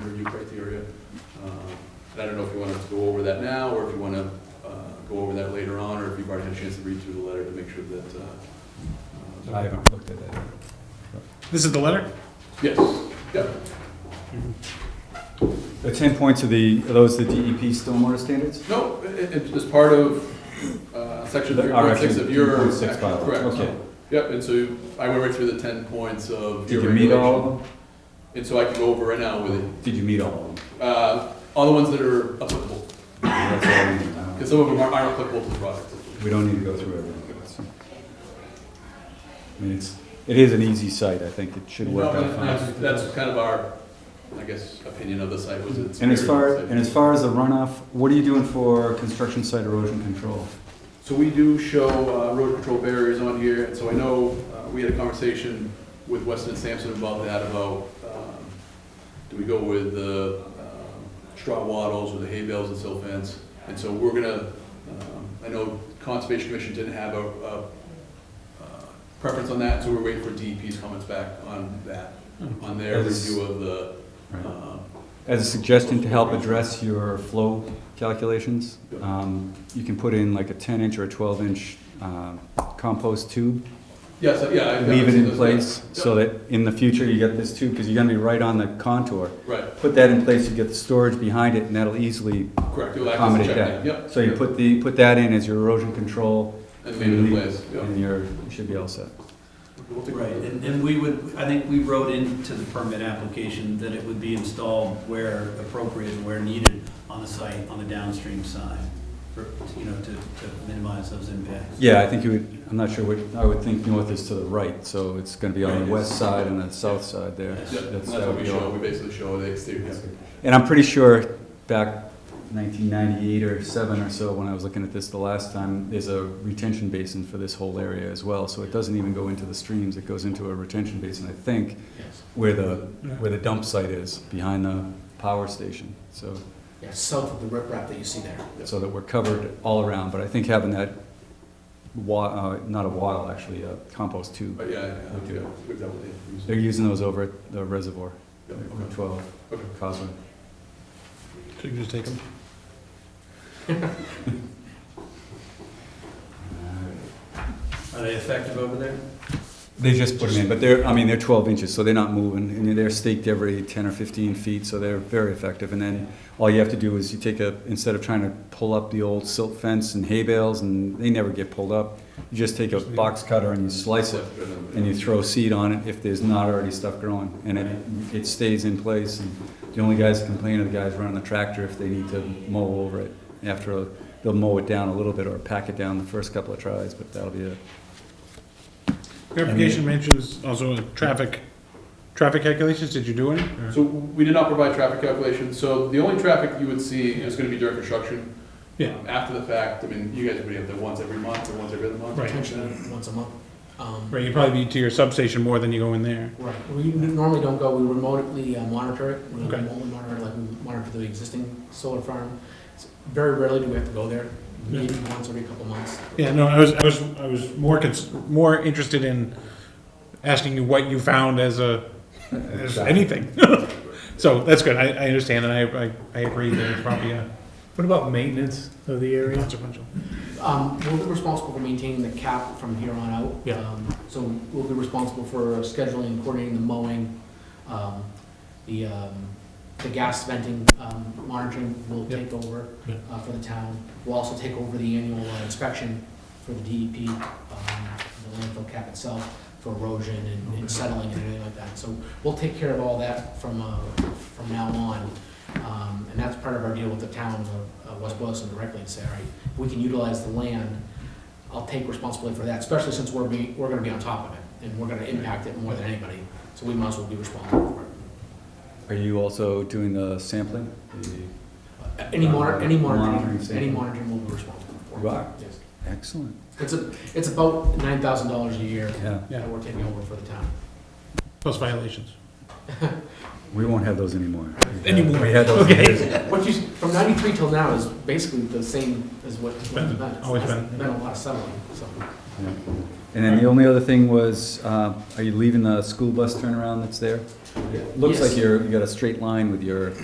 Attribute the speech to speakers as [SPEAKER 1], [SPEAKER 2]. [SPEAKER 1] Uh, that now, or if you want to go over that later on, or if you've already had a chance to read through the letter to make sure that. uh, uh,
[SPEAKER 2] I haven't looked at it.
[SPEAKER 3] This is the letter?
[SPEAKER 1] Yes, yeah,
[SPEAKER 2] The ten points are the, are those the DEP stormwater standards?
[SPEAKER 1] no, it- it- it's part of uh, section
[SPEAKER 2] The- our
[SPEAKER 1] 3.6 of
[SPEAKER 2] action,
[SPEAKER 1] your.
[SPEAKER 2] 3.6
[SPEAKER 1] action,
[SPEAKER 2] bylaw,
[SPEAKER 1] Correct.
[SPEAKER 2] okay.
[SPEAKER 1] Yep, and so I went right through the 10 points of
[SPEAKER 2] Did
[SPEAKER 1] your
[SPEAKER 2] you meet all
[SPEAKER 1] regulation.
[SPEAKER 2] of them?
[SPEAKER 1] And so I can go over right now with it,
[SPEAKER 2] Did you meet all of them?
[SPEAKER 1] Uh, all the ones that are applicable,
[SPEAKER 2] That's all we need now.
[SPEAKER 1] because some of them aren't aren't applicable to the project.
[SPEAKER 2] We don't need to go through everything. That's- I mean, it's, it is an easy site, I think it should work
[SPEAKER 1] No,
[SPEAKER 2] out
[SPEAKER 1] but
[SPEAKER 2] fine.
[SPEAKER 1] That's that's kind of our, I guess, opinion of the site was it's.
[SPEAKER 2] And as
[SPEAKER 1] very
[SPEAKER 2] far,
[SPEAKER 1] safe.
[SPEAKER 2] and as far as the runoff, what are you doing for construction site erosion control?
[SPEAKER 1] So we do show uh, road control barriers on here, and so I know uh, we had a conversation with Weston and Sampson about that, about, um, do we go with the um, straw wattles or the hay bales and silt fence? And so we're gonna, um, I know Conservation Commission didn't have a, a uh, preference on that, so we're waiting for DEP's comments back on that, on their
[SPEAKER 2] As-
[SPEAKER 1] review of the,
[SPEAKER 2] Right.
[SPEAKER 1] um,
[SPEAKER 2] As a suggestion to help address your flow calculations,
[SPEAKER 1] Yep.
[SPEAKER 2] um, you can put in like a ten inch or a twelve inch, um, compost tube.
[SPEAKER 1] yes, yeah. I've-
[SPEAKER 2] Leave
[SPEAKER 1] I've
[SPEAKER 2] it in
[SPEAKER 1] seen those, yeah.
[SPEAKER 2] place so that in the future you get this tube, because you're gonna be right on the contour.
[SPEAKER 1] Right,
[SPEAKER 2] Put that in place, you get the storage behind it and that'll easily,
[SPEAKER 1] correct, you'll access the
[SPEAKER 2] Accommodate
[SPEAKER 1] check
[SPEAKER 2] that.
[SPEAKER 1] lane, yep.
[SPEAKER 2] so you
[SPEAKER 1] yep,
[SPEAKER 2] put the, put that in as your erosion control
[SPEAKER 1] And leave it in place, yep.
[SPEAKER 2] and you're, you should be all set.
[SPEAKER 1] We'll take a
[SPEAKER 4] Right,
[SPEAKER 1] look.
[SPEAKER 4] and, and we would, I think we wrote into the permit application that it would be installed where appropriate, and where needed on the site, on the downstream side, for, you know, to, to minimize those impacts.
[SPEAKER 2] Yeah, I think you would, I'm not sure what, I would think north is to the right, so it's gonna be on the
[SPEAKER 1] Right.
[SPEAKER 2] west side and the south side there.
[SPEAKER 4] Yes.
[SPEAKER 1] Yep, that's
[SPEAKER 2] that
[SPEAKER 1] what
[SPEAKER 2] would
[SPEAKER 1] we
[SPEAKER 2] be all.
[SPEAKER 1] show, we basically show the exterior.
[SPEAKER 2] And I'm pretty sure back nineteen ninety-eight or seven or so, when I was looking at this the last time, there's a retention basin for this whole area as well, so it doesn't even go into the streams, it goes into a retention basin, I think,
[SPEAKER 4] Yes.
[SPEAKER 2] where the, where the dump site is, behind the power station, so,
[SPEAKER 5] Yeah, south of the riprap that you see there.
[SPEAKER 2] so that we're covered all around, but I think having that wa, uh, not a wattle, actually, a compost tube,
[SPEAKER 1] But yeah, yeah,
[SPEAKER 2] Okay.
[SPEAKER 1] yeah, we've dealt with it.
[SPEAKER 2] they're using those over at the reservoir,
[SPEAKER 1] Yeah,
[SPEAKER 2] Route
[SPEAKER 1] okay.
[SPEAKER 2] twelve,
[SPEAKER 1] Okay.
[SPEAKER 2] Causeway.
[SPEAKER 3] So you can just take them?
[SPEAKER 4] Are they effective over there?
[SPEAKER 2] They just put them in, but they're, I mean, they're twelve inches, so they're not moving, and they're staked every ten or fifteen feet, so they're very effective. And then all you have to do is you take a, instead of trying to pull up the old silt fence and hay bales, and they never get pulled up, you just take a box cutter and you slice it, and you throw seed on it if there's not already stuff growing, and it, it stays in place. And The only guys that complain are the guys running the tractor if they need to mow over it. After, a- they'll mow it down a little bit or pack it down the first couple of tries, but that'll be it.
[SPEAKER 3] Your application mentions also a traffic, traffic calculations, did you do any? or-
[SPEAKER 1] So we did not provide traffic calculations, so the only traffic you would see is gonna be during construction.
[SPEAKER 3] Yeah.
[SPEAKER 1] Um, After the fact, I mean, you guys would be up there once every month or once every other month.
[SPEAKER 3] Right.
[SPEAKER 5] Potentially once a month. Um,
[SPEAKER 3] Right, you'd probably be to your substation more than you go in there.
[SPEAKER 5] Right, we n- normally don't go, we remotely uh, monitor it. We
[SPEAKER 3] Okay.
[SPEAKER 5] remotely monitor, it, like, we monitor the existing solar farm. It's Very rarely do we have to go there, maybe once every couple months.
[SPEAKER 3] Yeah, no, I was, I was, I was more cons, more interested in asking you what you found as a, as anything. So that's good, I, I understand, and I, I, I agree that it's probably a. What about maintenance of the area? Consequential.
[SPEAKER 5] Um, We'll be responsible for maintaining the cap from here on out.
[SPEAKER 3] Yeah.
[SPEAKER 5] Um, So we'll be responsible for scheduling, coordinating the mowing, um, the, um, the gas venting um, monitoring will
[SPEAKER 3] Yep.
[SPEAKER 5] take over
[SPEAKER 3] Yeah.
[SPEAKER 5] uh, for the town. We'll also take over the annual uh, inspection for the DEP, um, the landfill cap itself for erosion and-
[SPEAKER 3] Okay.
[SPEAKER 5] and settling and everything like that. So we'll take care of all that from, uh, from now on. Um, And that's part of our deal with the town of uh, West Boylston directly, and say, all right, if we can utilize the land, I'll take responsibility for that, especially since we're being, we're gonna be on top of it, and we're gonna impact it more than anybody, so we might as well be responsible for it.
[SPEAKER 2] Are you also doing the sampling? The-
[SPEAKER 5] Uh, Any monitor, any
[SPEAKER 2] Uh, Monitoring
[SPEAKER 5] monitoring,
[SPEAKER 2] safety.
[SPEAKER 5] any monitoring we'll be responsible for.
[SPEAKER 2] You are?
[SPEAKER 5] Yes.
[SPEAKER 2] Excellent.
[SPEAKER 5] It's a, it's about nine thousand dollars a year
[SPEAKER 2] Yeah,
[SPEAKER 3] Yeah.
[SPEAKER 5] that we're taking over for the town.
[SPEAKER 3] Plus violations.
[SPEAKER 2] we won't have those anymore.
[SPEAKER 3] Anymore.
[SPEAKER 2] We had those.
[SPEAKER 3] Okay.
[SPEAKER 2] years ago.
[SPEAKER 5] What you, from ninety-three till now is basically the same as what, what it's been.
[SPEAKER 3] Always been.
[SPEAKER 5] It's Been a lot of settling, so.
[SPEAKER 2] Yeah. And then the only other thing was, uh, are you leaving the school bus turnaround that's there? Looks
[SPEAKER 5] Yes.
[SPEAKER 2] like you're, you got a straight line with your